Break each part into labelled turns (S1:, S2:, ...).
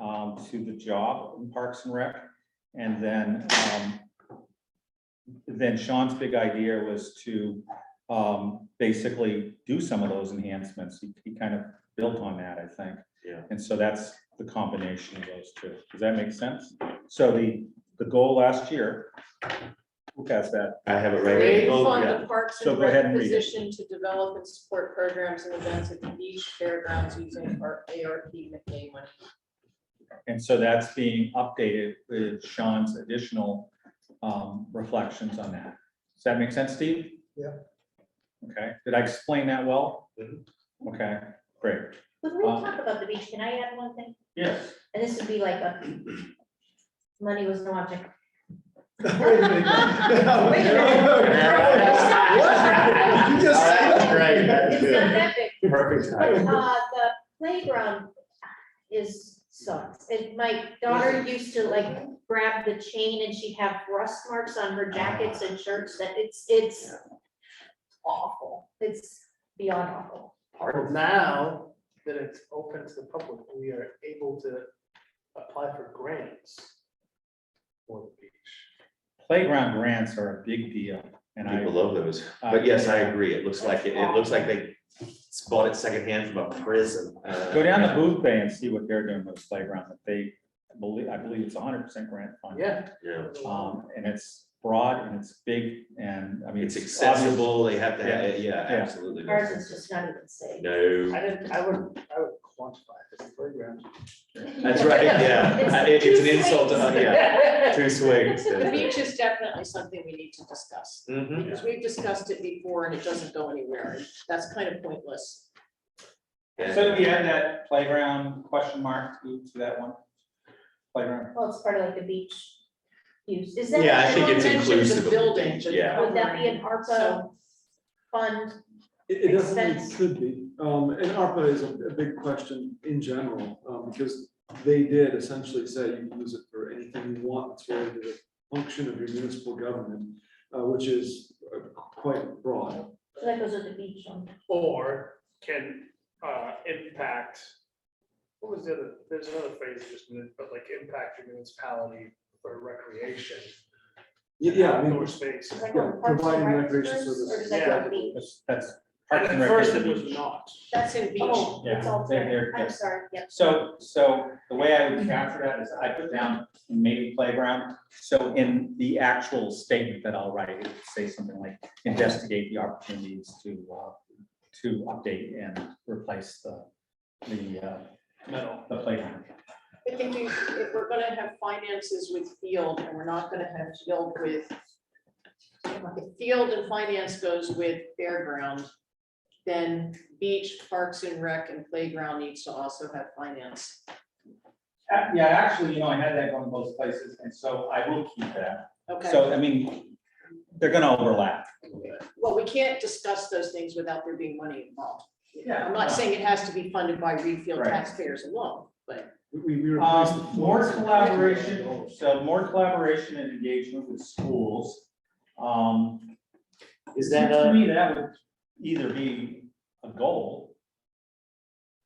S1: um, to the job in Parks and Rec. And then, um, then Sean's big idea was to, um, basically do some of those enhancements. He, he kind of built on that, I think.
S2: Yeah.
S1: And so that's the combination of those two. Does that make sense? So the, the goal last year, who has that?
S2: I have it right. here.
S3: Create
S2: Oh,
S3: fund
S2: yeah.
S3: the parks
S1: So
S3: and
S1: go ahead
S3: rec
S1: and read it.
S3: position to develop and support programs and events at the beach fairgrounds using our ARP McKay money.
S1: And so that's being updated with Sean's additional um, reflections on that. Does that make sense, Steve?
S4: Yeah.
S1: Okay, did I explain that well?
S2: Mhm.
S1: Okay, great.
S5: When we
S2: Um,
S1: Uh,
S5: talk about the beach, can I add one thing?
S1: Yes.
S5: And this would be like a, money was no object.
S4: Wait a minute.
S5: Wait a minute.
S4: You just said
S2: All right,
S4: that.
S5: It's not that big,
S2: Perfect
S5: but
S2: time.
S5: uh, the playground is sucks. And my daughter used to like grab the chain and she'd have rust marks on her jackets and shirts that it's, it's awful. It's beyond awful.
S6: Well, now that it's open to the public, we are able to apply for grants for the beach.
S1: Playground grants are a big deal, and I.
S2: People love those,
S1: uh,
S2: but yes, I agree, it looks like, it It looks like they bought it secondhand from a prison. Uh,
S1: Go down to Booth Bay and see what they're doing with the playground, that they believe, I believe it's hundred percent grant funded.
S6: Yeah.
S2: Yeah,
S1: Um, and it's broad and it's big and, I mean.
S2: it's
S1: obvious-
S2: accessible, they have to, have it. yeah,
S1: Yeah.
S2: absolutely.
S5: Ours is just not even safe.
S2: No,
S6: I didn't, I would, I would quantify this playground.
S2: that's right, yeah,
S5: It's
S2: It- it's an
S5: two
S2: insult, to-
S5: swings.
S2: yeah, two swings.
S3: The beach is definitely something we need to discuss,
S2: Mhm.
S3: because we've discussed it before and it doesn't go anywhere, and that's kind of pointless.
S1: So do you add that playground question mark to to that one? Playground,
S5: Well, it's part of like the beach use. Is that?
S2: Yeah, I
S5: an
S2: think it's
S3: Mentioned
S5: elementary
S3: the
S2: inclusive of the
S3: building,
S2: beach,
S3: but-
S2: yeah.
S5: Would that be an ARPA fund?
S7: It, it definitely
S5: expense.
S7: could be, um, and ARPA is a, a big question in general, um, because they did essentially say you can use it for anything you want, it's related to the function of your municipal government, uh, which is uh, quite broad.
S5: So that goes with the beach um, one.
S6: Or can uh impact, what was the other, there's another phrase you just, moved, but like impact your municipality for recreation.
S7: Y- Yeah, I mean,
S6: Outdoor space.
S5: Does that go
S7: Yeah,
S5: with Parks and
S7: providing
S5: Rec
S7: recreation
S5: first, Or does
S6: services.
S5: that go with beach?
S1: that's, that's. Parks
S6: At
S1: and Rec is
S6: first
S1: the
S6: it was
S1: beach.
S6: not.
S3: That's in beach.
S5: Oh, it's
S1: Yeah,
S5: all
S1: they're- they're-
S5: there. I'm
S1: yeah.
S5: sorry, yeah.
S1: So, so the way I would capture that is I put down maybe playground. So in the actual statement that I'll write, it would say something like investigate the opportunities to, uh, to update and replace the, the, uh, the playground.
S3: I think we- if we're gonna have finances with field and we're not gonna have field with. if Field and finance goes with fairground, then beach, parks and rec and playground needs to also have finance.
S1: Uh, Yeah, actually, you know, I had that going both places, and so I will keep that.
S3: Okay,
S1: So, I mean, they're gonna overlap.
S3: well, we can't discuss those things without there being money involved.
S1: Yeah.
S3: I'm not saying it has to be funded by refield
S1: Right.
S3: taxpayers alone, but
S7: we, we replaced the
S1: Um,
S7: floors
S1: more
S7: with-
S1: collaboration, so more collaboration and engagement with schools. Um,
S2: Is that,
S1: to
S2: uh,
S1: me, that would either be a goal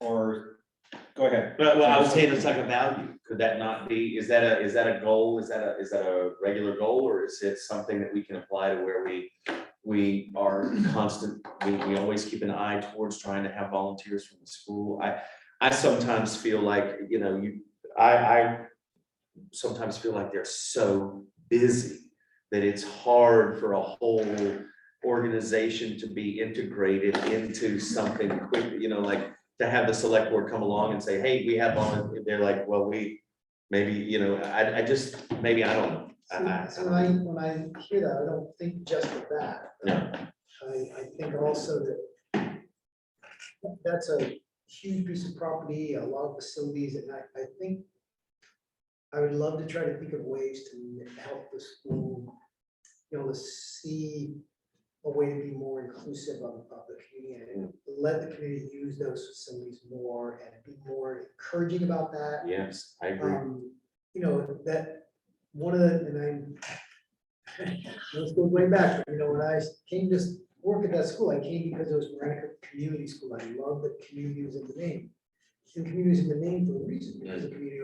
S1: or, go ahead.
S2: but, well, I was saying it's like a value, could that not be, is that a, is that a goal, is that a, is that a regular goal, or is it something that we can apply to where we, we are constant, we, we always keep an eye towards trying to have volunteers from the school, I, I sometimes feel like, you know, you, I, I sometimes feel like they're so busy that it's hard for a whole organization to be integrated into something quick, you know, like to have the select board come along and say, hey, we have on, they're like, well, we, maybe, you know, I, I just, maybe, I don't know. I- I-
S8: So When I, when I hear that, I don't think just of that.
S2: No.
S8: I, I think also that that's a huge piece of property, a lot of facilities, and I, I think I would love to try to think of ways to help the school, you know, to see a way to be more inclusive of, of the community. and Let the community use those facilities more and be more encouraging about that
S2: Yes, I agree.
S8: um, you know, that, one of the, and I, let's go way back, you know, when I came to s- work at that school, I came because it was Veronica Community School, I love that community was in the name. And community is in the name for a reason, because the community